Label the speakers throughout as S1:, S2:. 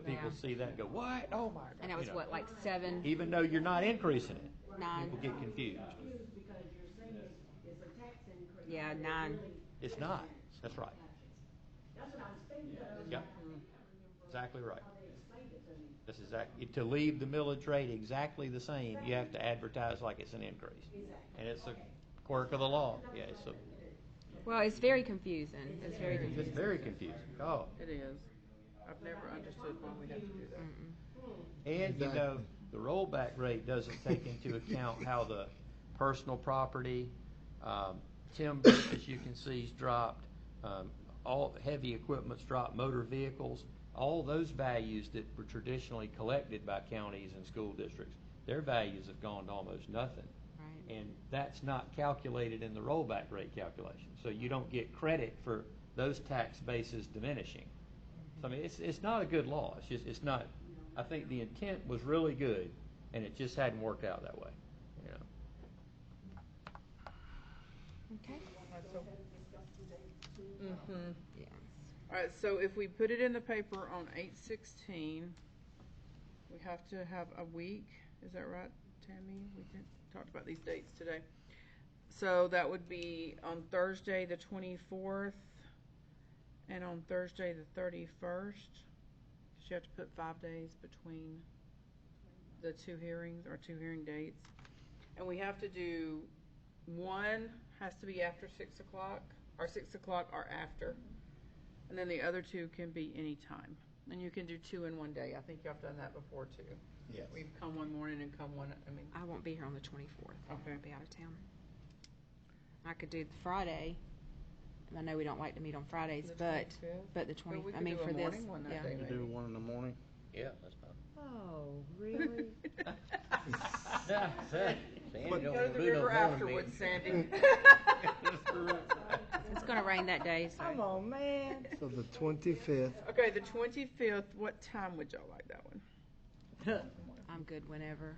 S1: people see that and go, what? Oh my. God,"
S2: And that
S1: you
S2: was
S1: know.
S2: what, like seven,
S1: Even though you're not increasing it, people
S2: nine?
S1: get confused.
S3: because you're saying it's a tax increase.
S2: Yeah, nine.
S1: It's not. That's right.
S3: That's what I was thinking, but I was
S1: Yeah.
S3: like, I can't remember
S1: Exactly right.
S3: how they explained it to me.
S1: That's exactly, to leave the millage rate exactly the same, you have to advertise like it's an increase. And it's a quirk of the law. Yeah, it's a,
S2: Well, it's very confusing. It's very
S1: it's
S2: confusing.
S1: very confusing. Oh.
S4: It is. I've never understood why we have to do that.
S1: And, you know,
S5: Exactly.
S1: the rollback rate doesn't take into account how the personal property, um, timber, as you can see, has dropped, um, all heavy equipment's dropped, motor vehicles, all those values that were traditionally collected by counties and school districts, their values have gone to almost nothing.
S2: Right.
S1: And that's not calculated in the rollback rate calculation. So you don't get credit for those tax bases diminishing. So I mean, it's, it's not a good law. It's just, it's not, I think the intent was really good and it just hadn't worked out that way, you know.
S2: Okay. Mm-hmm. Yes.
S4: All right, so if we put it in the paper on eight sixteen, we have to have a week, is that right, Tammy? We did- talked about these dates today. So that would be on Thursday, the twenty-fourth, and on Thursday, the thirty-first. Because you have to put five days between the two hearings, or two hearing dates. And we have to do, one has to be after six o'clock, or six o'clock or after. And then the other two can be any time. And you can do two in one day. I think y'all have done that before too.
S5: Yes.
S4: We've come one morning and come one, I mean,
S2: I won't be here on the twenty-fourth.
S4: Okay.
S2: I'll be out of town. I could do the Friday. I know we don't like to meet on Fridays,
S4: The
S2: but,
S4: 25th?
S2: but the
S4: But we
S2: twenty, I
S4: could
S2: mean,
S4: do a
S2: for this,
S4: morning one that
S2: yeah.
S4: day.
S5: You do one in the morning?
S1: Yeah, that's
S6: Oh, really?
S1: fine.
S4: go to the river afterwards, Sandy.
S2: It's gonna rain that day,
S6: Come
S2: so
S6: on, man.
S5: So the twenty-fifth,
S4: Okay, the twenty-fifth, what time would y'all like that one?
S2: I'm good whenever.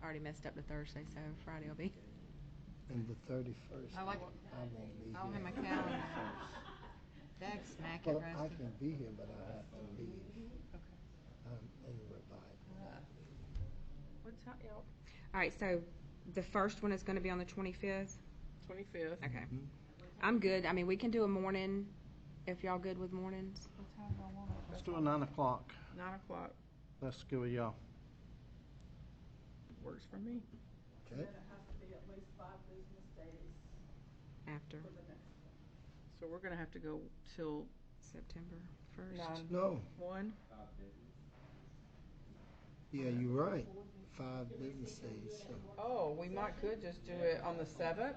S2: I Already messed up the Thursday, so Friday will be.
S5: and the thirty-first. I
S2: like-
S5: won't be
S2: don't have my
S5: here.
S2: calendar. That's smacking
S5: Well, I can be here, but I have to leave. I'm in revival.
S4: What time, y'all?
S2: All right, so the first one is gonna be on the twenty-fifth.
S4: Twenty-fifth.
S2: Okay.
S5: Mm-hmm.
S2: I'm good. I mean, we can do a morning, if y'all good with mornings.
S4: What time do I want it?
S5: Let's do a nine o'clock.
S4: Nine o'clock
S5: Let's go, y'all.
S4: works for me.
S5: Okay?
S3: There has to be at least five business days
S2: After
S3: for the next.
S4: So we're gonna have to go till
S2: September first.
S4: nine,
S5: No,
S4: one?
S5: yeah, you're right. Five business days, so.
S4: Oh, we might could just do it on the seventh,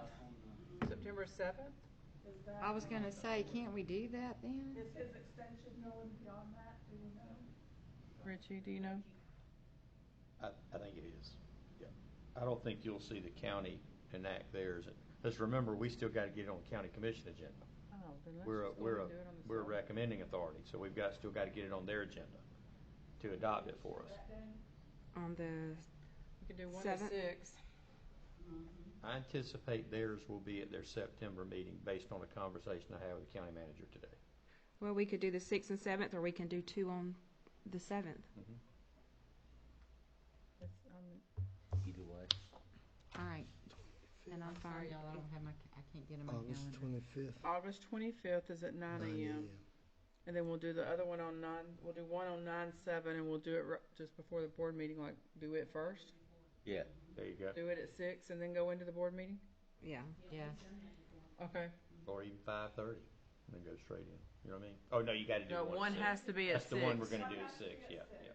S4: September seventh?
S6: I was gonna say, can't we do that then?
S3: Is his extension going beyond that, do you know?
S4: Richie, do you know?
S1: I, I think it is. Yeah. I don't think you'll see the county enact theirs. Let's remember, we still gotta get it on the county commission agenda.
S4: Oh, then let's
S1: We're, a
S4: just go
S1: we're, a
S4: and do it on the
S1: we're a
S4: 7th.
S1: recommending authority, so we've got, still gotta get it on their agenda to adopt it for us.
S2: On the
S4: We can do one to
S2: Seventh.
S4: six.
S1: I anticipate theirs will be at their September meeting based on a conversation I had with the county manager today.
S2: Well, we could do the sixth and seventh, or we can do two on the seventh.
S7: Mm-hmm.
S4: That's, um,
S7: Either way.
S6: All right,
S2: And I'm
S6: sorry
S2: fine.
S6: y'all, I don't have my, ca- I can't get in my
S5: August
S6: calendar.
S5: twenty-fifth.
S4: August twenty-fifth is at nine AM, and then we'll do the other one on nine, we'll do one on nine seven, and we'll do it ri- just before the board meeting, like, do it first,
S7: Yeah.
S1: There you go.
S4: do it at six, and then go into the board meeting?
S2: Yeah.
S6: Yes.
S4: Okay.
S1: Or even five thirty, and then go straight in. You know what I mean? Oh, no, you gotta do
S4: No,
S1: one. at
S4: one
S1: six.
S4: has to be at
S1: That's the one we're
S4: six.
S1: gonna do at six, yeah, yeah.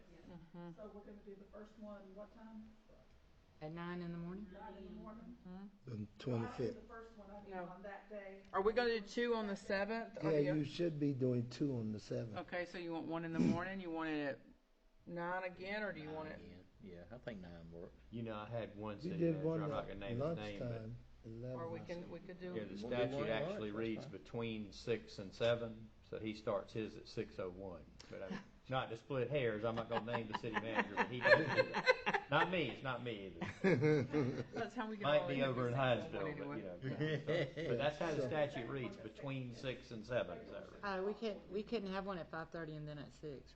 S3: So we're gonna do the first one, what time?
S6: At nine in the morning?
S3: Nine in the morning?
S5: The
S3: I do
S5: twenty-fifth.
S3: the first one, I do
S4: No.
S3: on that day.
S4: Are we gonna do two on the seventh?
S5: Yeah, you should be doing two on the seventh.
S4: Okay, so you want one in the morning, you want it at nine again, or do you want it?
S7: Yeah, I think nine works.
S1: You know, I had one
S5: We
S1: city
S5: did
S1: manager,
S5: one
S1: I'm not
S5: at
S1: gonna name his name, but,
S5: lunchtime, eleven.
S4: Or we
S5: I
S4: can,
S5: think.
S4: we could
S1: yeah,
S4: do,
S1: the
S7: We'll do one
S1: statute
S7: at
S1: actually
S7: lunch,
S1: reads
S7: that's fine.
S1: between six and seven, so he starts his at six oh one. But I'm, not to split hairs, I'm not gonna name the city manager, but he does do that. Not me, it's not me either.
S4: that's how we can.
S1: Might
S4: all
S1: be
S4: end up
S1: over in
S4: the same one
S1: Hinesville, but
S4: anyway.
S1: you know. But that's how the statute reads, between six and seven, is that right?
S6: Uh, we can't, we couldn't have one at five thirty and then at six,